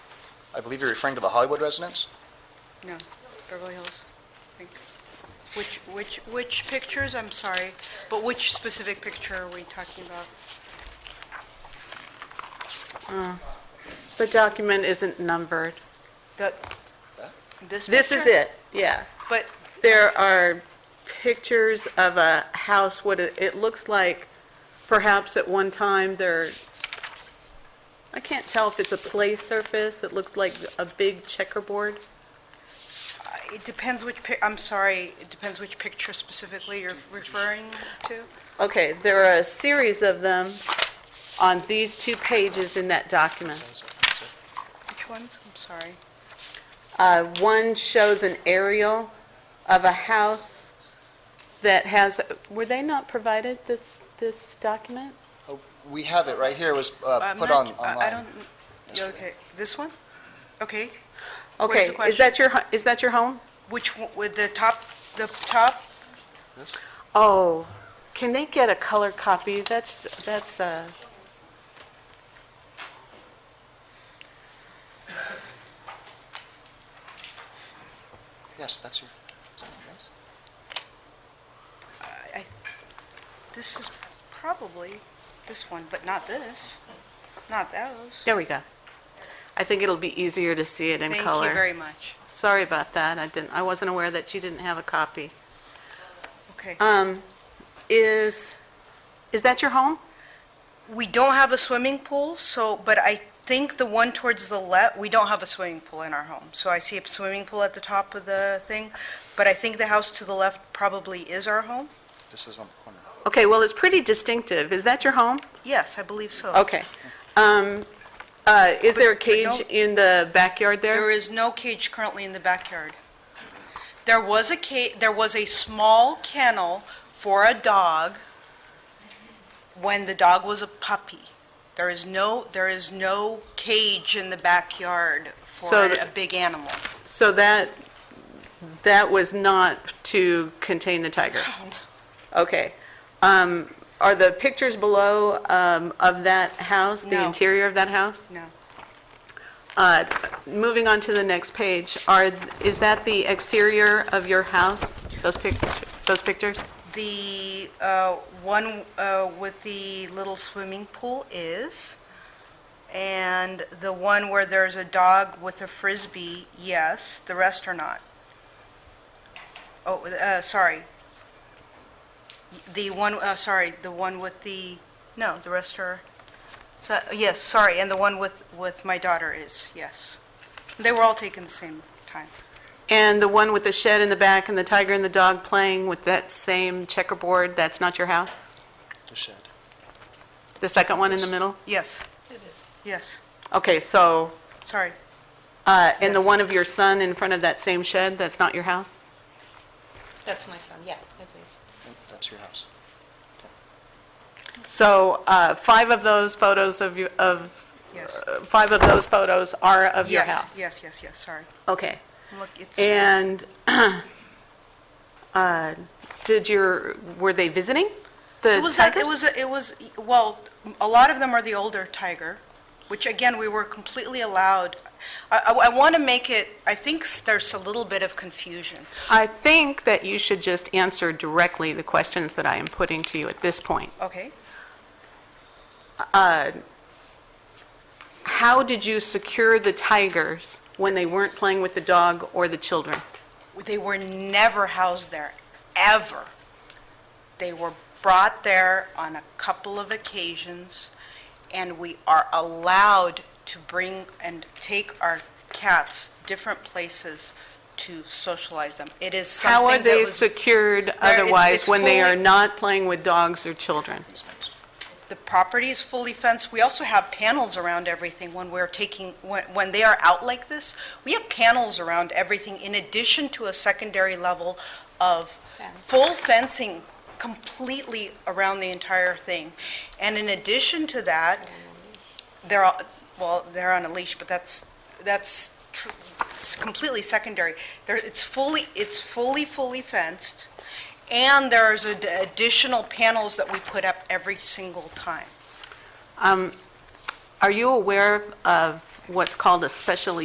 I believe you're referring to the Hollywood residence? No, Beverly Hills, I think. Which, which, which pictures, I'm sorry, but which specific picture are we talking about? The document isn't numbered. The, this This is picture? it, yeah. But, There are pictures of a house, what it, it looks like perhaps at one time there, I can't tell if it's a play surface, it looks like a big checkerboard. uh, it depends which, pic- I'm sorry, it depends which picture specifically you're referring to? Okay, there are a series of them on these two pages in that document. Which ones? I'm sorry. Uh, One shows an aerial of a house that has, were they not provided this, this document? Oh, We have it right here, it was uh, I'm put on not- I- online. I don't, yeah, okay, this one? Okay, Okay, the is question? that your, hu- is that your home? which, one- with the top, the top, This? Oh, can they get a color copy? That's, that's, uh, Yes, that's your, is that yours? I, I- this is probably this one, but not this, not those. there we go. I think it'll be easier to see it in Thank color. you very much. Sorry about that. I didn't, I wasn't aware that you didn't have a copy. Okay. Um, is, is that your home? We don't have a swimming pool, so, but I think the one towards the left, we don't have a swimming pool in our home. So I see a swimming pool at the top of the thing, but I think the house to the left probably is our home. This is on the corner. Okay, well, it's pretty distinctive. Is that your home? Yes, I believe so. Okay. Um, uh, is there a but cage don't- in the backyard There there? is no cage currently in the backyard. There was a ca, there was a small kennel for a dog when the dog was a puppy. There is no, there is no cage in the backyard for So a the- big animal. So that, that was not to contain the tiger? Okay. Um, are the pictures below, um, of that house, the No. interior of that house? No. Uh, moving on to the next page, are, is that the exterior of your house? Those pic, those pictures? The uh, one uh, with the little swimming pool is, and the one where there's a dog with a frisbee, yes, the rest are not. Oh, uh, sorry. The one, uh, sorry, the one with the, no, the rest are, so- yes, sorry, and the one with, with my daughter is, yes. They were all taken the same time. And the one with the shed in the back and the tiger and the dog playing with that same checkerboard, that's not your house? The shed. The second one in the middle? Yes. It is. Yes, Okay, so, sorry. uh, and the one of your son in front of that same shed, that's not your house? That's my son, yeah, it is. Yep, That's your house. So uh, five of those photos of, you- of, Yes. uh, five of those photos are of your Yes, house? Yes, yes, yes, sorry. Okay. Look, it's, And uh, did your, were they visiting? the it was, that- it tigers? was, a- it was, well, a lot of them are the older tiger, which again, we were completely allowed. I, want to make it, I think s- there's a little bit of confusion. I think that you should just answer directly the questions that I am putting to you at this point. Okay, How did you secure the tigers when they weren't playing with the dog or the children? they were never housed there, ever. They were brought there on a couple of occasions, and we are allowed to bring and take our cats different places to socialize them. It is How are something that they was secured it's- otherwise it's when they fully- are not playing with dogs or children? Easements. The property is fully fenced. We also have panels around everything when we're taking, when, when they are out like this, we have panels around everything in addition to a secondary level of full fencing completely around the entire thing. And in addition to that, they're, all- well, they're on a leash, but that's, that's tr- it's completely secondary. There, it's fully, it's fully, fully fenced, and there's ad- additional panels that we put up every single time. Are you aware of what's called a special